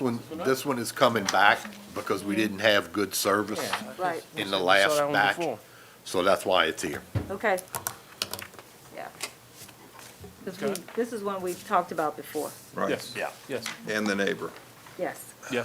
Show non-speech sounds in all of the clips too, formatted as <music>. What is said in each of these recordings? One, this one is coming back because we didn't have good service Right, in the We saw last that one batch. before. So that's why it's here. okay. Yeah. 'Cause we- Okay. this is one we've talked about before, Right, Yes, Yeah. yes, and the neighbor. yes. yeah,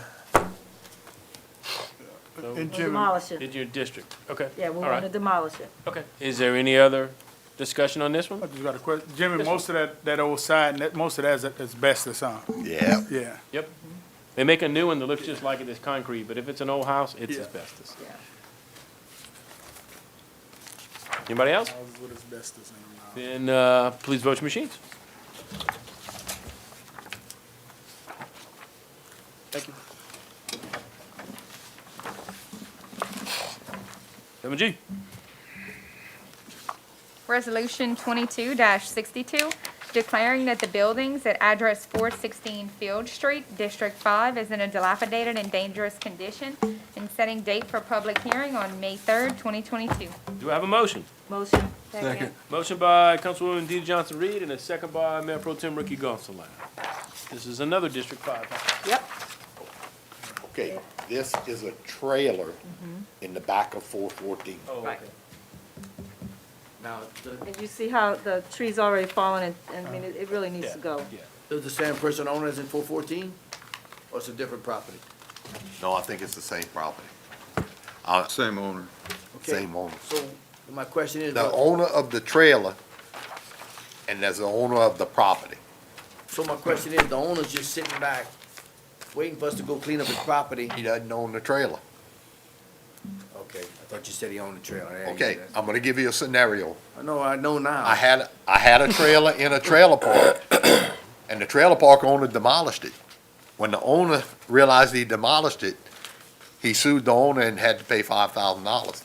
And Jim, Demolish it, in your district, okay. yeah, we all right, want to demolish it. Okay, is there any other discussion on this I one? just got a question. Jimmy, Yes, sir. most of that, that old sign, that, most of that's asbestos, huh? Yeah. Yeah. Yep. Mm-hmm. They make a new one that looks just like it is concrete, but if it's an old house, it's Yeah. asbestos. Yeah. Anybody else? Houses with asbestos in them. Then, uh, please vote your machines. Thank you. Seven G, Resolution twenty-two sixty-two, declaring that the buildings at address four sixteen Field Street, District Five, is in a dilapidated and dangerous condition, and setting date for public hearing on May third, twenty twenty-two. do I have a motion? Motion, Second. Motion by Councilwoman Dee Johnson Reed and a second by Mayor Pro Tem Ricky Gonsalas. This is another District Five. yep, Okay, this is a trailer Mm-hmm. in the back of four fourteen. Oh, Right. Now, th- and you see how the tree's already fallen, and, and I mean, it it really needs to go. Yeah. does the same person own it as in four fourteen, or it's a different property? No, I think it's the same property, Same owner. Okay. same owner. So, my question is, uh, The well, owner of the trailer and there's the owner of the property. so my question is, the owner's just sitting back, waiting for us to go clean up his property? He doesn't own the trailer. Okay, I thought you said he owned the trailer. I didn't Okay, hear that. I'm gonna give you a scenario. I know, I know now. I had, I had a trailer in a trailer park, and the trailer park owner demolished it. When the owner realized he demolished it, he sued the owner and had to pay five thousand dollars.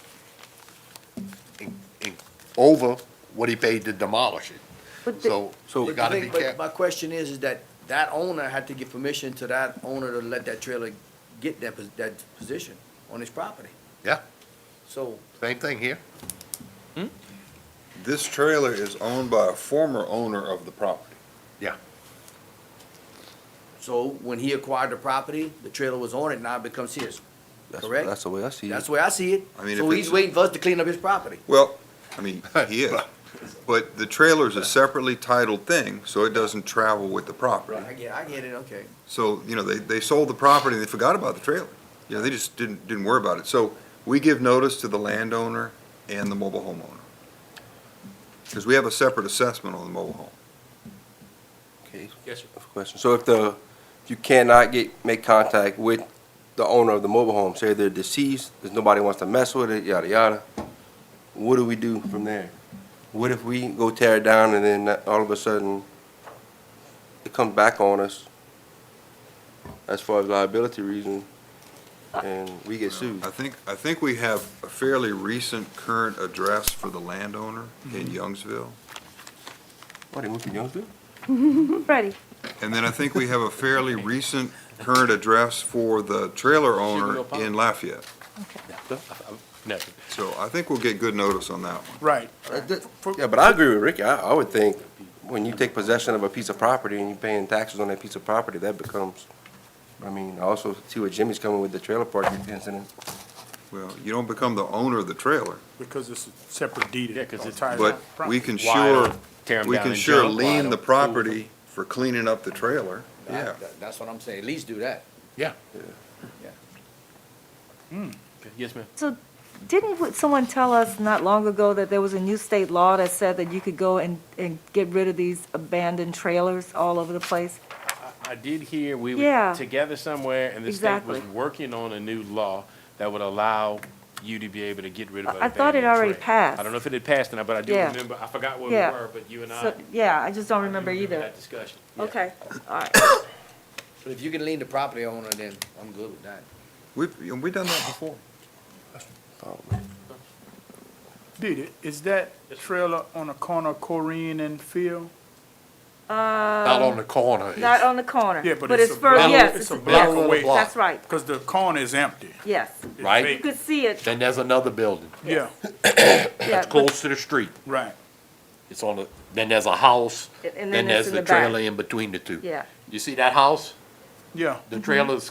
Over what he paid to demolish it, But the- so you But gotta the be thing- but careful. My question is, is that that owner had to give permission to that owner to let that trailer get that, pos- that position on his property. Yeah. So, Same thing here, This trailer is owned by a former owner of the property. so when he acquired the property, the trailer was on it, now it becomes his, correct? That's the way I see it. That's the way I see it. I mean, So if he's it's- waiting for us to clean up his property. Well, I mean, he is, but the trailer's a separately titled thing, so it doesn't travel with the property. I get, I get it, okay. So, you know, they, they sold the property, and they forgot about the trailer. You know, they just didn't, didn't worry about it. So we give notice to the landowner and the mobile homeowner. Because we have a separate assessment on the mobile home. Okay, Yes, sir. question. So if the, if you cannot get, make contact with the owner of the mobile home, say they're deceased, there's nobody wants to mess with it, yada, yada, what do we do from there? What if we go tear it down and then all of a sudden it comes back on us as far as liability reason and we get sued? I think, I think we have a fairly recent current address for the landowner in Youngsville. What, they moved to Youngsville? ready, And then I think we have a fairly recent current address for the trailer owner Sugarmill Pond. in Lafayette. Never. So I think we'll get good notice on that one. Right. Uh, th- Yeah, but I agree with Ricky. I, I would think when you take possession of a piece of property and you're paying taxes on that piece of property, that becomes, I mean, I also see where Jimmy's coming with the trailer park incident. Well, you don't become the owner of the trailer, Because it's a separate deed. Yeah, 'cause it's- Entire but property. we can Why sure, don't tear 'em we down can and sure jump? Why lean the don't- property for cleaning up the trailer. Yeah, That- That's what I'm saying, at least do that. yeah. Okay, Yes, ma'am. so didn't w- someone tell us not long ago that there was a new state law that said that you could go and, and get rid of these abandoned trailers all over the place? I did hear we were Yeah. together somewhere and the state was Exactly. working on a new law that would allow you to be able to get rid of I- I thought it abandoned already trash. I passed. don't know if it had passed or not, but I do Yeah. remember, I forgot where we Yeah. were, but you and I. So, yeah, I just don't remember either. That discussion. Yeah. Okay, all right. <coughs> But if you can lean the property owner, then I'm good with that. we've, and we've done that before. Did it, is that trailer on the corner of Corinne and Field? Uh, Not on the corner. Um, Not on the corner. Yeah, but it's it's a for, block- yes. it's a it's- block yes, away. That's right, Because the corner is empty. yes. It's Right. You vacant. could see it, Then there's another building, Yeah, yeah. but- close to the street. right. It's on the, then there's a house, And- and then it's there's in the back. trailer in between the two. Yeah, Mm-hmm. You see that house? Yeah. The trailer's